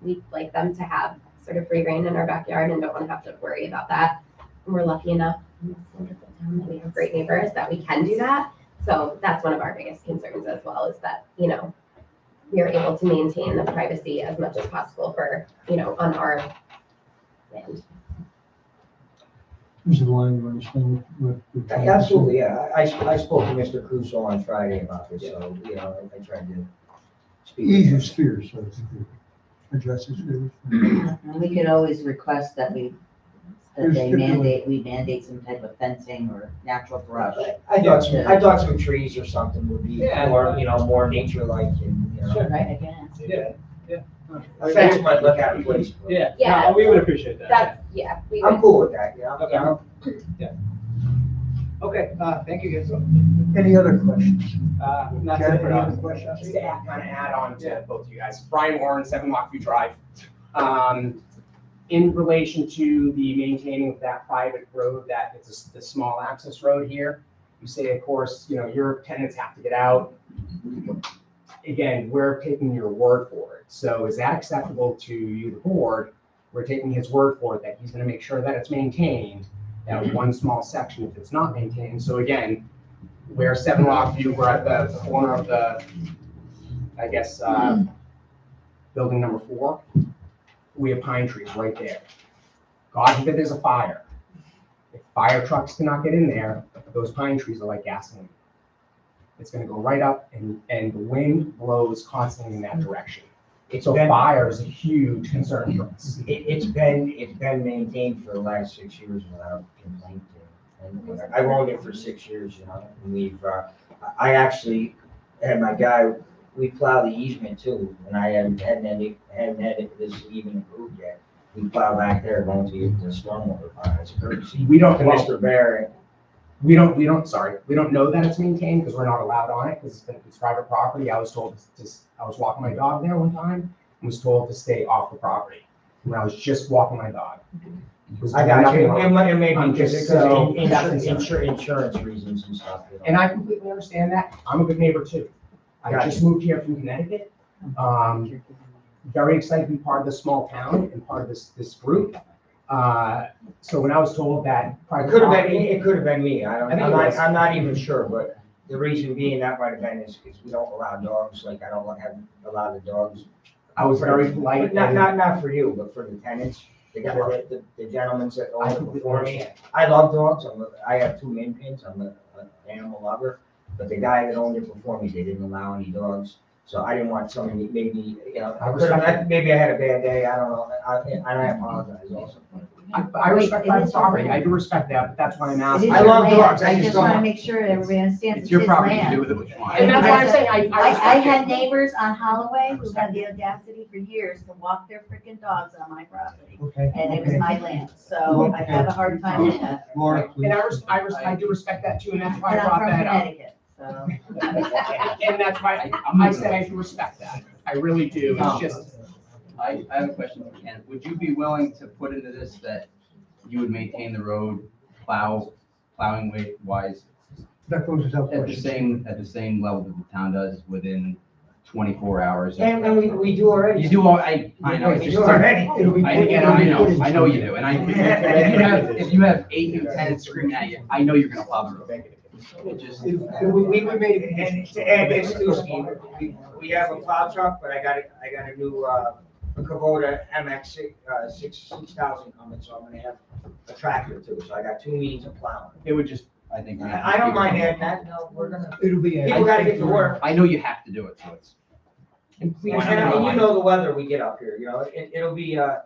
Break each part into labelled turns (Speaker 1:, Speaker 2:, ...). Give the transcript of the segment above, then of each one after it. Speaker 1: we'd like them to have sort of free reign in our backyard and don't want to have to worry about that. And we're lucky enough in this wonderful town that we have great neighbors that we can do that. So that's one of our biggest concerns as well is that, you know, we are able to maintain the privacy as much as possible for, you know, on our land.
Speaker 2: Mr. Lyon, you understand what? what-
Speaker 3: Absolutely, yeah. I, I spoke to Mr. Crusoe on Friday about this, so, you know, I tried to speak. with
Speaker 2: Ease
Speaker 3: him.
Speaker 2: his fears, so I think it addresses fears.
Speaker 4: And We could always request that we,
Speaker 2: There's
Speaker 4: that they
Speaker 2: stipulate-
Speaker 4: mandate, we mandate some type of fencing or natural brush.
Speaker 3: But I thought, some- I thought some trees or something would be
Speaker 5: Yeah.
Speaker 3: more, you know, more nature-like and, you know.
Speaker 5: Sure.
Speaker 4: Right, again.
Speaker 5: Yeah, yeah.
Speaker 3: A fence might look out of place. but
Speaker 5: Yeah,
Speaker 1: Yeah.
Speaker 5: no, we would appreciate that. yeah.
Speaker 1: That's, yeah, we
Speaker 3: I'm
Speaker 1: would,
Speaker 3: cool with that, yeah.
Speaker 5: Okay.
Speaker 3: Yeah.
Speaker 5: Okay, uh, thank you guys.
Speaker 2: Any other questions?
Speaker 5: Uh, not
Speaker 2: Karen,
Speaker 5: to-
Speaker 2: any other questions?
Speaker 6: Just to add, kind of add on
Speaker 5: Yeah.
Speaker 6: to both of you guys. Brian Warren, Seven Lockview Drive. Um, in relation to the maintaining of that private road, that it's a s- the small access road here. You say, of course, you know, your tenants have to get out. Again, we're taking your word for it. So is that acceptable to you, the board? We're taking his word for it that he's gonna make sure that it's maintained, that one small section if it's not maintained. So again, where Seven Lockview, we're at the corner of the I guess, uh, building number four, we have pine trees right there. God forbid there's a fire. If fire trucks cannot get in there, those pine trees are like gasoline. It's gonna go right up and, and the wind blows constantly in that direction.
Speaker 3: It's
Speaker 6: So
Speaker 3: been,
Speaker 6: fire is a huge concern for us.
Speaker 3: it, it's been, it's been maintained for the last six years without complaint. And I've owned it for six years, you know, and we've, uh, I I actually had my guy, we plow the easement too, and I hadn't, hadn't had it, hadn't had it this even approved yet. We plow back there going to the stormwater pond, it's courtesy.
Speaker 6: We don't,
Speaker 3: To Mr. Barrett,
Speaker 6: we don't, we don't, sorry, we don't know that it's maintained because we're not allowed on it because it's private property. I was told to, s- I was walking my dog there one time and was told to stay off the property when I was just walking my dog. Was
Speaker 3: I got
Speaker 6: nothing
Speaker 3: you,
Speaker 6: wrong.
Speaker 3: it might, it may be
Speaker 6: I'm
Speaker 3: just
Speaker 6: just
Speaker 3: because
Speaker 6: so-
Speaker 3: of insurance, insur- insurance reasons and stuff. you know.
Speaker 6: And I completely understand that. I'm a good neighbor too. I
Speaker 3: Gotcha.
Speaker 6: just moved here from Connecticut. Um, very excited to be part of this small town and part of this, this group. Uh, so when I was told that.
Speaker 3: It
Speaker 6: private
Speaker 3: could have been,
Speaker 6: property-
Speaker 3: it could have been me, I don't,
Speaker 6: I think
Speaker 3: I'm
Speaker 6: it
Speaker 3: not,
Speaker 6: was.
Speaker 3: I'm not even sure, but the reason being that might have been is because we don't allow dogs, like I don't want to have a lot of dogs.
Speaker 6: I was very
Speaker 3: But
Speaker 6: polite.
Speaker 3: Not,
Speaker 6: and
Speaker 3: not, not for you, but for the tenants, the guy, the, the gentlemen that
Speaker 6: I
Speaker 3: owned it
Speaker 6: completely
Speaker 3: before me.
Speaker 6: understand.
Speaker 3: I love dogs, I'm, a- I have two main pins, I'm a, an animal lover, but the guy that owned it before me, they didn't allow any dogs. So I didn't want somebody, maybe, you know, I
Speaker 6: I
Speaker 3: could have-
Speaker 6: respect-
Speaker 3: maybe I had a bad day, I don't know, I, I apologize also.
Speaker 6: I, I respect private property. I do respect that, but that's why I'm
Speaker 4: It is
Speaker 6: asking.
Speaker 3: I love
Speaker 4: your land.
Speaker 3: dogs, I just don't
Speaker 4: wanna
Speaker 3: want-
Speaker 4: make sure everybody understands it's
Speaker 7: It's your
Speaker 4: his
Speaker 7: property, you do
Speaker 4: land.
Speaker 7: with it what you want.
Speaker 6: And that's why I'm saying I, I
Speaker 4: I, I
Speaker 6: respect
Speaker 4: had
Speaker 6: it.
Speaker 4: neighbors on Holloway who had the audacity for years to walk their freaking dogs on my property.
Speaker 2: Okay.
Speaker 4: And it was
Speaker 2: okay.
Speaker 4: my land, so I have a hard time with that.
Speaker 2: Laura, please.
Speaker 6: And I, res- I, res- I do respect that too, and that's why I
Speaker 4: And I'm
Speaker 6: brought
Speaker 4: from
Speaker 6: that up.
Speaker 4: Connecticut, so.
Speaker 6: And and that's why I, I said I do respect that. I really do. It's just,
Speaker 7: I, I have a question for Ken. Would you be willing to put into this that you would maintain the road plow, plowing weight wise
Speaker 2: That closes out
Speaker 7: at the
Speaker 2: questions.
Speaker 7: same, at the same level that the town does within twenty-four hours? of-
Speaker 3: And, and we, we do already.
Speaker 7: You do all, I, I know, it's
Speaker 3: We
Speaker 7: just,
Speaker 3: do
Speaker 7: I,
Speaker 3: already.
Speaker 7: and I know, I know you do, and I, if you have, if you have eight and ten screaming at you, I know you're gonna plow the road. It just,
Speaker 3: We, we we made, and to add excuse me, we, we have a plow truck, but I got a, I got a new, uh, a Kubota MX six, uh, six, six thousand coming, so I'm gonna have a tractor too, so I got two means of plowing.
Speaker 7: it would just, I think.
Speaker 3: I, I don't mind adding that, no, we're gonna,
Speaker 2: It'll be.
Speaker 3: people gotta get to work.
Speaker 7: I know you have to do it, so it's.
Speaker 3: And please,
Speaker 7: Why not?
Speaker 3: and I mean, you know the weather we get up here, you know, it, it'll be, uh,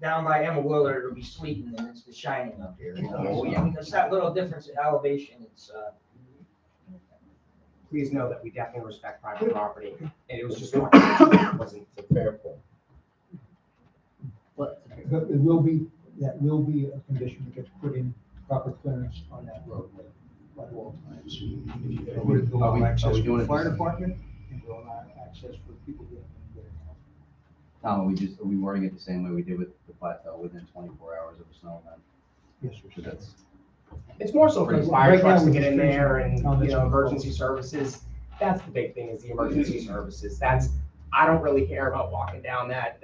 Speaker 3: down by Emma Willard, it'll be sweet and then it's the shining up here, you know.
Speaker 7: Oh,
Speaker 3: so
Speaker 7: yeah.
Speaker 3: It's that little difference in elevation, it's, uh,
Speaker 6: please know that we definitely respect private property, and it was just not, it wasn't fair point.
Speaker 4: What?
Speaker 2: But it will be, that will be a condition that gets put in proper clearance on that roadway by all times. It will
Speaker 7: Are we-
Speaker 2: allow
Speaker 7: are
Speaker 2: access
Speaker 7: we
Speaker 2: for
Speaker 7: doing
Speaker 2: the
Speaker 7: it
Speaker 2: fire
Speaker 7: this-
Speaker 2: department and will allow access for people getting in and
Speaker 7: Tom, are we just, are we wording it the same way we did with the plateau within twenty-four hours of a snow event?
Speaker 2: getting out. Yes,
Speaker 7: So
Speaker 2: sir.
Speaker 7: that's,
Speaker 6: It's more so for the
Speaker 2: Right
Speaker 6: fire
Speaker 2: now,
Speaker 6: trucks to
Speaker 2: we're
Speaker 6: get in
Speaker 2: just-
Speaker 6: there and,
Speaker 2: Oh,
Speaker 6: you
Speaker 2: that's
Speaker 6: know,
Speaker 2: cool.
Speaker 6: emergency services. That's the big thing is the emergency services. That's, I don't really care about walking down that,